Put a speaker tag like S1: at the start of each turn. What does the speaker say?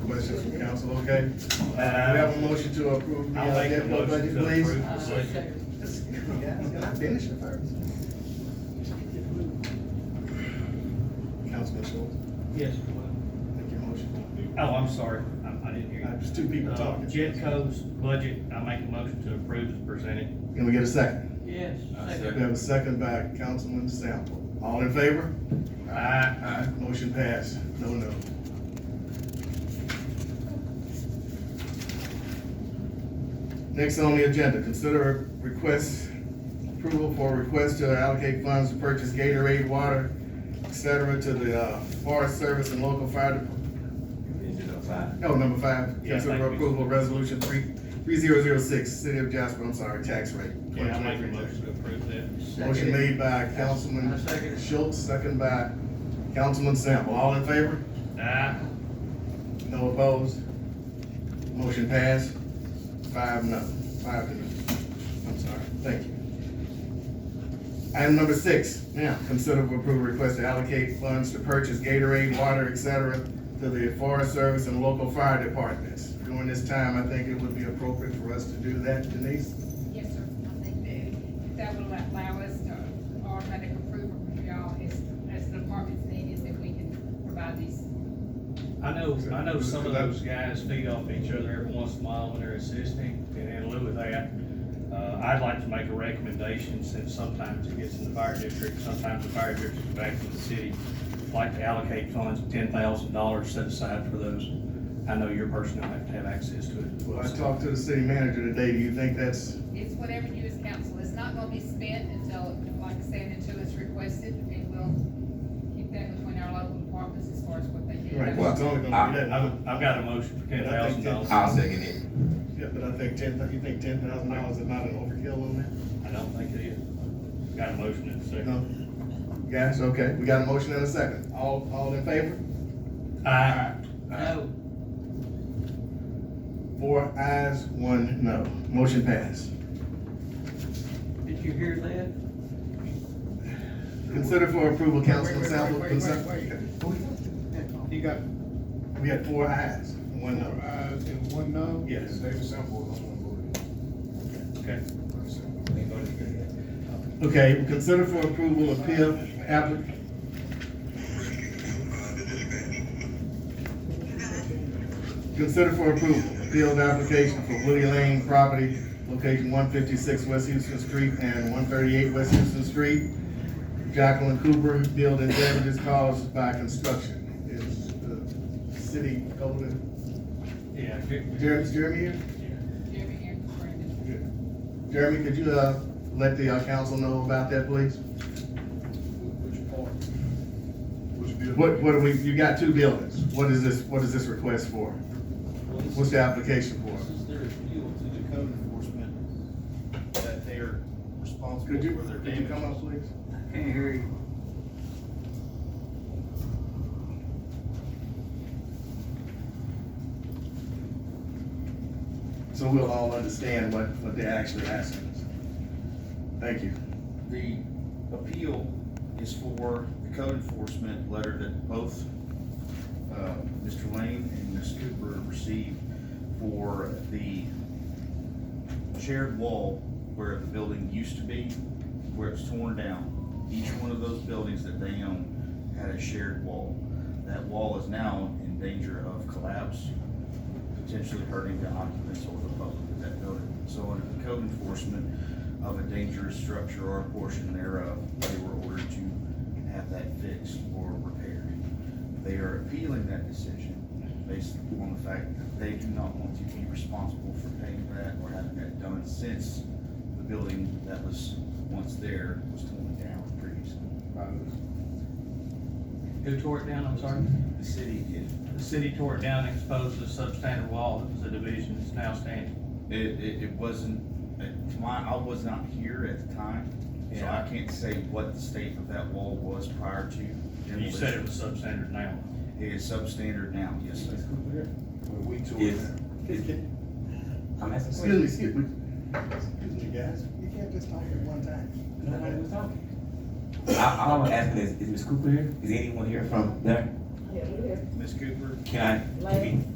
S1: questions from council, okay? We have a
S2: Oh,
S1: motion to approve the
S2: Uh, I'll
S1: uh,
S2: make the
S1: capital budget,
S2: motion to
S1: please.
S2: approve the budget.
S1: Yes, can I finish it first? Councilman Schultz,
S2: Yes.
S1: make your motion.
S2: Oh, I'm sorry, I, I didn't hear
S1: Uh,
S2: you.
S1: There's two people
S2: Uh,
S1: talking.
S2: Jetco's budget, I make a motion to approve as presented.
S1: Can we get a second?
S3: Yes.
S1: We have a second by Councilman Sample. All in favor?
S2: Aye.
S1: Motion passed, no, no. Next on the agenda, consider request, approval for request to allocate funds to purchase Gatorade, water, et cetera, to the, uh, Forest Service and local fire department. No, number five,
S2: Yeah,
S1: consider
S2: thank you.
S1: approval of resolution three, three zero zero six, city of Jasper, I'm sorry, tax rate.
S2: Yeah, I make a
S1: 2023 tax
S2: motion to approve that.
S1: rate. Motion made by
S3: I second
S1: Councilman
S3: it.
S1: Schultz, second by Councilman Sample, all in favor?
S2: Aye.
S1: No opposed? Motion passed, five no, five to no. I'm sorry, thank you. Item number six, now, consider for approval request to allocate funds to purchase Gatorade, water, et cetera, to the Forest Service and local fire departments. During this time, I think it would be appropriate for us to do that, Denise.
S4: Yes, sir, I think that, that will allow us to automatic approval from y'all as, as the department's needed, that we can provide these.
S2: I know, I know some of those guys feed off each other every once in a while when they're assisting, and in lieu of that, uh, I'd like to make a recommendation, since sometimes it gets in the fire district, sometimes the fire district's back to the city, like to allocate funds, ten thousand dollars set aside for those. I know your personnel have to have access to it.
S1: Well, I talked to the city manager today, do you think that's,
S4: It's whatever you as council, it's not gonna be spent until, like I said, until it's requested, and we'll keep that between our local departments as far as what they do.
S1: right,
S4: That's-
S1: it's only gonna be that,
S2: I've, I've got a motion for ten thousand dollars.
S1: I
S2: I
S5: I'll second it.
S1: yeah, but I think ten, you think ten thousand dollars is not an overkill on that?
S2: don't think it is. Got a motion in a second.
S1: No. Guys, okay, we got a motion and a second. All, all in favor?
S2: Aye.
S3: No,
S1: Four ayes, one no. Motion passed.
S3: did you hear that?
S1: Consider for approval, Councilman
S6: Wait, wait,
S1: Sample.
S6: wait, wait,
S1: consent-
S6: wait, He got,
S1: We got four ayes, one
S6: one
S1: no.
S6: ayes and one no?
S1: Yes.
S6: David Sample is on one
S2: Okay.
S6: vote.
S1: Okay, consider for approval of PIP applic- Consider for approval, appealed application for Woody Lane property, location one fifty-six West Houston Street and one thirty-eight West Houston Street. Jacqueline Cooper, building damages caused by construction. Is the city golden,
S2: Yeah. good.
S1: Jeremy, is Jeremy here?
S4: Jeremy here, Brandon.
S1: Jeremy, could you, uh, let the, uh, council know about that, please?
S6: Which part? Which bill?
S1: What, what do we, you got two buildings. What is this, what is this request for? What's the application
S7: This
S1: for?
S7: is their appeal to the code enforcement that they are responsible
S1: Could you,
S7: for their
S1: could you
S7: damage.
S1: come up, please?
S3: Can't hear you.
S1: So we'll all understand what, what they're actually asking us. Thank you.
S7: The appeal is for the code enforcement letter that both, uh, Mr. Lane and Ms. Cooper received for the shared wall where the building used to be, where it's torn down. Each one of those buildings that they own had a shared wall. That wall is now in danger of collapse, potentially hurting the occupants or the public of that building. So under the code enforcement, of a dangerous structure or a portion thereof, they were ordered to have that fixed or repaired. They are appealing that decision based on the fact that they do not want to be responsible for paying that or having that done since the building that was once there was torn down previously.
S2: Who tore it down, I'm sorry?
S7: The city did.
S2: The city tore it down and exposed a substandard wall that was a division that's now standing.
S7: It, it, it wasn't, it- my, I was not here at the time, so I
S2: Yeah.
S7: can't say what the state of that wall was prior to demolition.
S2: You said it was substandard now.
S7: It is substandard now, yes, sir.
S1: We two.
S8: Yes. I'm asking.
S1: Excuse me, excuse me. Excuse me, guys.
S6: You can't just talk at one time.
S1: Nobody was
S8: talking. I, all I'm asking is, is Ms. Cooper here? Is anyone here from there?
S9: Yeah, we're here.
S7: Ms. Cooper,
S8: Can I?
S9: Lane.